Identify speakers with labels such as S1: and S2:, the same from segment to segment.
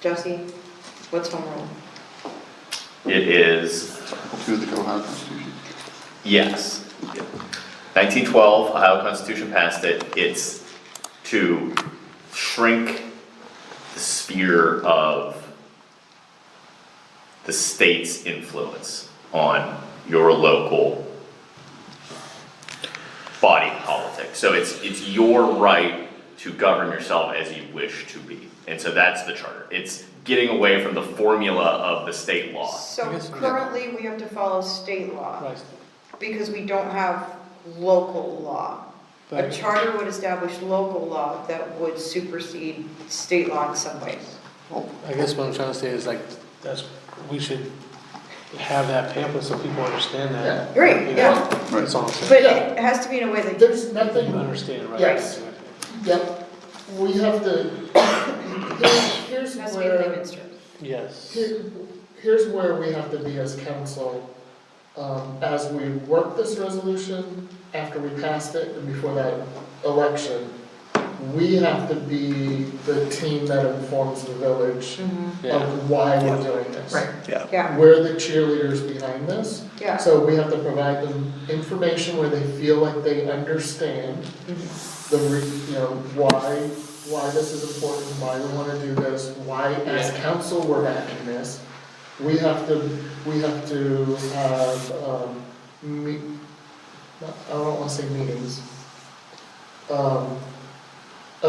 S1: Josie, what's home rule?
S2: It is,
S3: to the Ohio Constitution.
S2: yes. 1912, Ohio Constitution passed it. It's to shrink the sphere of the state's influence on your local body politic. So it's, it's your right to govern yourself as you wish to be. And so that's the charter. It's getting away from the formula of the state law.
S1: So
S4: guess we-
S1: currently, we have to follow state law,
S4: Right.
S1: because we don't have local law. A
S4: Right.
S1: charter would establish local law that would supersede state law in some ways.
S4: I guess what I'm trying to say is like, that's, we should have that pamphlet so people understand that.
S1: Yeah. Right,
S4: You know,
S1: yeah.
S4: That's all I'm saying.
S1: But it has to be in a way that,
S5: There's nothing
S4: People Understand, right?
S5: Yes. that we have to, here's
S1: has to be
S5: where,
S1: Leominster.
S4: Yes.
S5: here- here's where we have to be as council. Um, as we work this resolution, after we passed it and before that election, we have to be the team that informs the village
S4: Yeah.
S5: of why we're doing this.
S1: Yeah,
S5: We're the cheerleaders behind this.
S1: yeah,
S5: So we have to provide them information where they feel like they understand
S1: Mm-hmm.
S5: the, re- you know, why, why this is important, why we wanna do this, why as
S4: Yeah.
S5: council we're backing this. We have to, we have to have, um, meet, not- I don't wanna say meetings. Um, uh,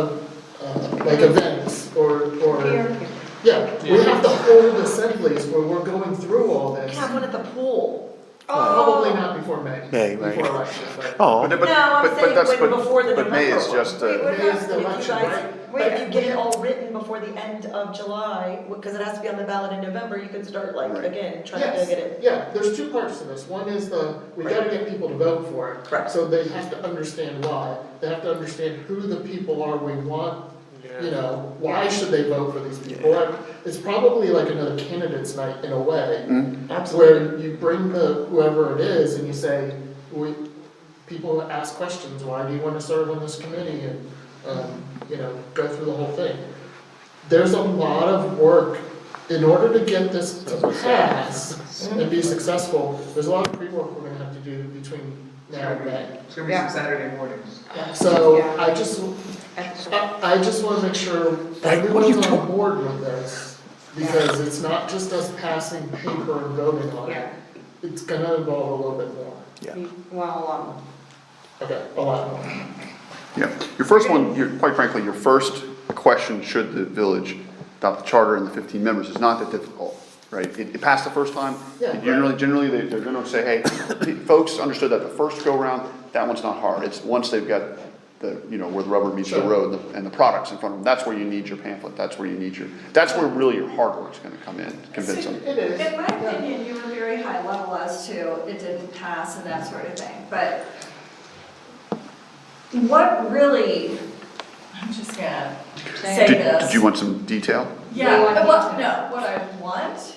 S5: uh, like events or, or.
S1: We are-
S5: Yeah, we
S4: Yeah.
S5: have to hold assemblies where we're going through all this. Uh,
S6: one at the pool.
S1: Oh.
S5: Probably not before May.
S7: May, right.
S5: Before election, but.
S7: Oh,
S3: But- but-
S6: No, I'm
S3: but- but
S6: saying
S3: that's-
S6: when
S3: but-
S6: before the
S3: But May is
S6: November one.
S3: just,
S1: Wait,
S3: uh,
S1: what
S5: May
S1: about,
S5: is the
S6: If you
S5: election,
S6: guys,
S5: right?
S6: but if you get it all written before the end of July, because it has to be on the ballot in November, you can start like,
S3: Right.
S6: again, trying to
S5: Yes,
S6: get it.
S5: yeah, there's two parts to this. One is the, we gotta get people to vote for it.
S6: Correct.
S5: So they have to understand why. They have to understand who the people are we want, you know, why should they vote for these people? It's probably like another candidate's night in a way. Where you bring the, whoever it is, and you say, we, people ask questions, why do you wanna serve on this committee, and, um, you know, go through the whole thing. There's a lot of work, in order to get this to pass and be successful, there's a lot of pre-work we're gonna have to do between now and then.
S8: It's gonna be
S1: Yeah.
S8: some Saturday mornings.
S5: So,
S1: Yeah.
S5: I just, I, I just wanna make sure everyone's on board with this, because it's not just us passing paper and voting on it.
S1: yeah,
S5: It's gonna involve a little bit more,
S1: we- well, um,
S5: okay, a lot more.
S3: yeah, your first one, your, quite frankly, your first question, should the village adopt the charter and the fifteen members, is not that difficult, right? It, it passed the first time,
S5: Yeah.
S3: and generally, generally, they, they're gonna say, hey, folks understood that the first go-round, that one's not hard, it's once they've got the, you know, where the rubber meets the
S5: Sure.
S3: road and the, and the products in front of them, that's where you need your pamphlet, that's where you need your, that's where really your hard work's gonna come in, convince them.
S5: It is.
S9: In my
S5: yeah.
S9: opinion, you were very high level as to it didn't pass and that sort of thing, but what really, I'm just gonna say
S3: Did,
S9: this.
S3: did you want some detail?
S9: Yeah,
S1: You want
S9: but
S1: me
S9: what,
S1: to-
S9: no, what I want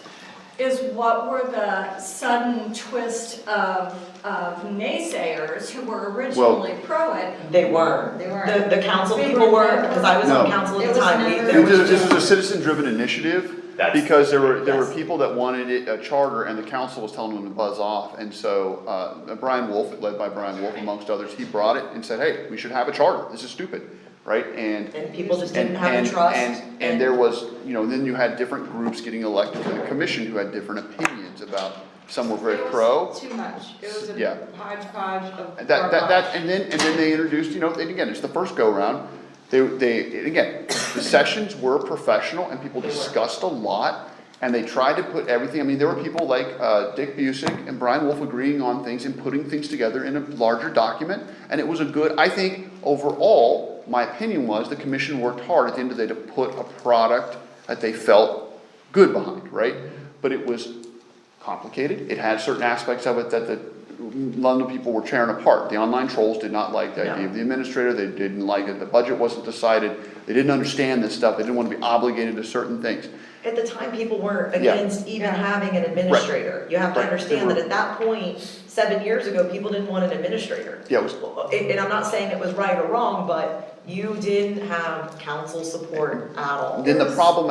S9: is what were the sudden twist of, of naysayers who were originally pro it?
S6: They were.
S1: um, They were.
S6: The, the council
S1: They
S6: people
S1: were.
S6: were, because I was on
S3: No.
S6: council at
S1: It
S6: the
S1: was
S6: time,
S1: never-
S6: there
S1: It
S3: This is,
S6: was.
S3: this is a citizen-driven initiative,
S2: That's-
S3: because there were, there were
S6: yes.
S3: people that wanted it, a charter, and the council was telling them to buzz off, and so, uh, Brian Wolf, led by Brian Wolf amongst others, he brought it and said, hey, we should have a charter, this is stupid, right, and.
S6: And people just
S3: and-
S6: didn't have
S3: and-
S6: the trust.
S3: And, and there was, you know, then you had different groups getting elected to the commission who had different opinions about, some were very
S1: it was
S3: pro.
S1: Too much, it was
S3: Yeah.
S1: a hodgepodge of
S3: And That,
S1: garbage.
S3: that, that, and then, and then they introduced, you know, and again, it's the first go-round, they, they, and again, the sessions were professional and people discussed a lot, and they tried to put everything, I mean, there were people like, uh, Dick Busick and Brian Wolf agreeing on things and putting things together in a larger document, and it was a good, I think, overall, my opinion was, the commission worked hard at the end of the day to put a product that they felt good behind, right? But it was complicated. It had certain aspects of it that the London people were tearing apart. The online trolls did not like the idea of the administrator, they didn't like it, the budget wasn't decided, they didn't understand this stuff, they didn't want to be obligated to certain things.
S6: At the time, people were
S3: Yeah.
S6: against even
S1: Yeah.
S6: having an administrator. You have to
S3: Right. They
S6: understand
S3: were-
S6: that at that point, seven years ago, people didn't want an administrator.
S3: Yeah, it was-
S6: And, and I'm not saying it was right or wrong, but you didn't have council support at all.
S3: Then the problem